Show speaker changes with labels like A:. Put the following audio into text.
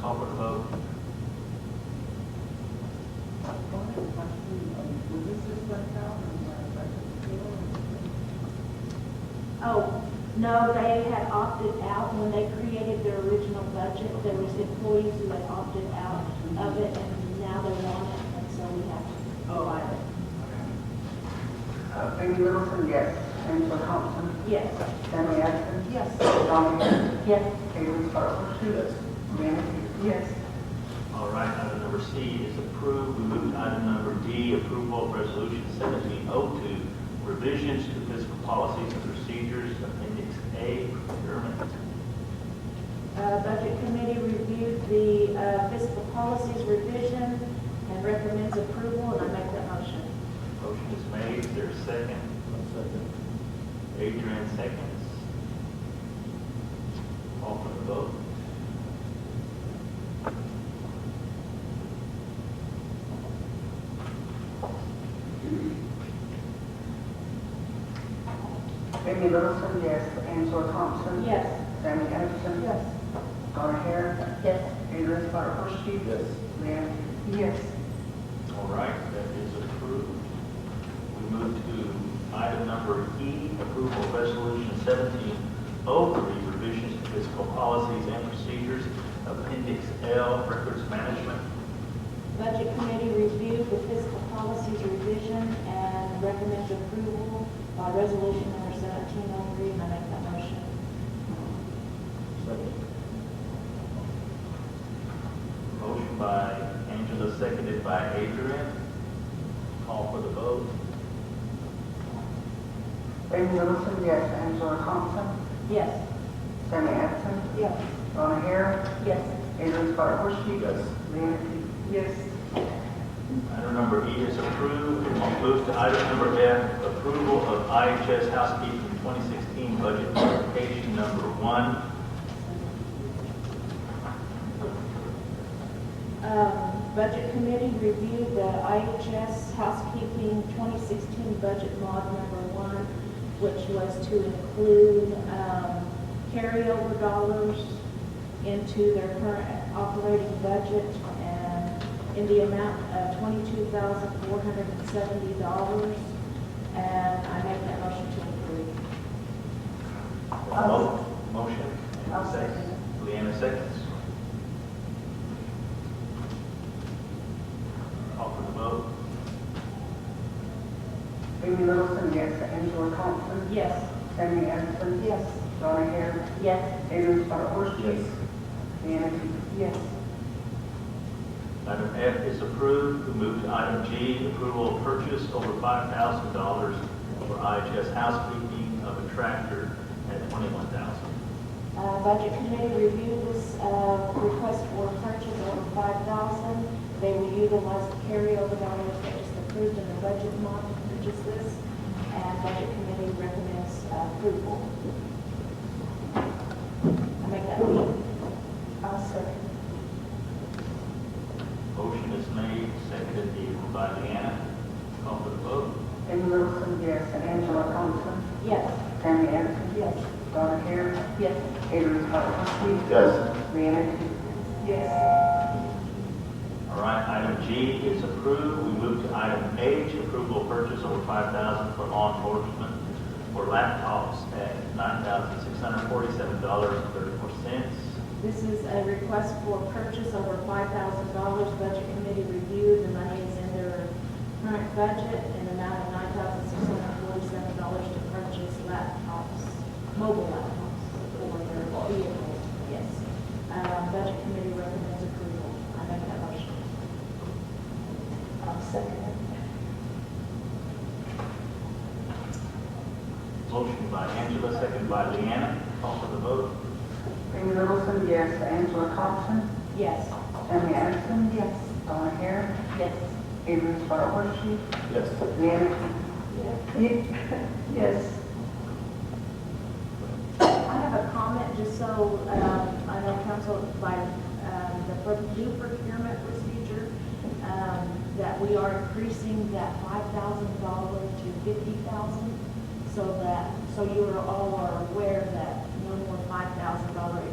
A: public vote.
B: Uh,
C: Oh, no, they had opted out when they created their original budget. There was employees who had opted out of it and now they want it and so we have to provide it.
B: Uh, Amy Littleton, yes. Angela Thompson,
C: Yes.
B: Sammy Anderson,
D: Yes.
B: Donna Harris,
C: Yes.
B: Haley Sparrow,
A: Yes.
B: Janice Hughes.
D: Yes.
A: All right, item number C is approved. We move to item number D, approval of resolution seventeen oh two, revisions to fiscal policies and procedures, appendix A, procurement.
C: Uh, Budget Committee reviewed the uh, fiscal policies revision and recommends approval, and I make that motion.
A: Motion is made, is there a second? second. Adrian seconds. Call for the vote.
B: Amy Littleton, yes. Angela Thompson.
C: Yes.
B: Sammy Anderson.
D: Yes.
B: Donna Harris,
C: Yes.
B: Adrian Sparrow. Yes. Janice Hughes.
D: Yes.
A: All right, that is approved. We move to item number E, approval of resolution seventeen oh three, revisions to fiscal policies and procedures, appendix L, records management.
C: Budget Committee reviewed the fiscal policies revision and recommends approval by resolution number 1703, and I make that motion.
A: Motion by Angela, seconded by Adrian. Call for the vote.
B: Amy Littleton, yes. Angela Thompson,
C: Yes.
B: Sammy Anderson,
D: Yes.
B: Donna Harris,
C: Yes.
B: Adrian Sparrow.
A: Yes.
B: Janice Hughes.
D: Yes.
A: Item number E is approved. We'll move to item number F, approval of IHS housekeeping 2016 budget modification number one.
C: Um, Budget Committee reviewed the IHS housekeeping 2016 budget mod number one, which was to include um, carryover dollars into their current operating budget and in the amount of $22,470. And I make that motion to approve.
A: Mo- Motion.
D: I'll second
A: Leanna seconds. Call for the vote.
B: Amy Littleton, yes. Angela Thompson,
C: Yes.
B: Sammy Anderson,
D: Yes.
B: Donna Harris,
C: Yes.
B: Adrian Sparrow. Janice Hughes.
D: Yes.
A: Item F is approved. We move to item G, approval of purchase over $5,000 for IHS housekeeping of a tractor at $21,000.
C: Uh, Budget Committee reviewed this uh, request for purchase over five thousand. They will utilize the carryover dollars that was approved in the budget mod to purchase this, and Budget Committee recommends uh, approval. I make that motion.
D: I'll second.
A: Motion is made, seconded by Deanna. Call for the vote.
B: Amy Littleton, yes. Angela Thompson,
C: Yes.
B: Sammy Anderson,
D: Yes.
B: Donna Harris,
D: Yes.
B: Adrian Sparrow.
A: Yes.
B: Janice Hughes.
D: Yes.
A: All right, item G is approved. We move to item H, approval of purchase over five thousand for law enforcement for laptops at nine thousand six hundred forty-seven dollars and thirty-four cents.
C: This is a request for purchase over five thousand dollars. Budget committee reviewed, the money is in their current budget, an amount of nine thousand six hundred forty-seven dollars to purchase laptops, mobile laptops for their vehicles, yes. Uh, budget committee recommends approval. I make that motion.
D: I'll second.
A: Motion by Angela, second by Leanna. Call for the vote.
B: Amy Littleton, yes. Angela Thompson,
C: Yes.
B: Sammy Anderson,
D: Yes.
B: Donna Harris,
C: Yes.
B: Adrian Sparrow.
A: Yes.
B: Janice Hughes.
D: Yes.
C: I have a comment, just so, um, I know council, by, um, the pro- new procurement procedure, um, that we are increasing that five thousand dollar to fifty thousand, so that, so you are all are aware that no more five thousand dollar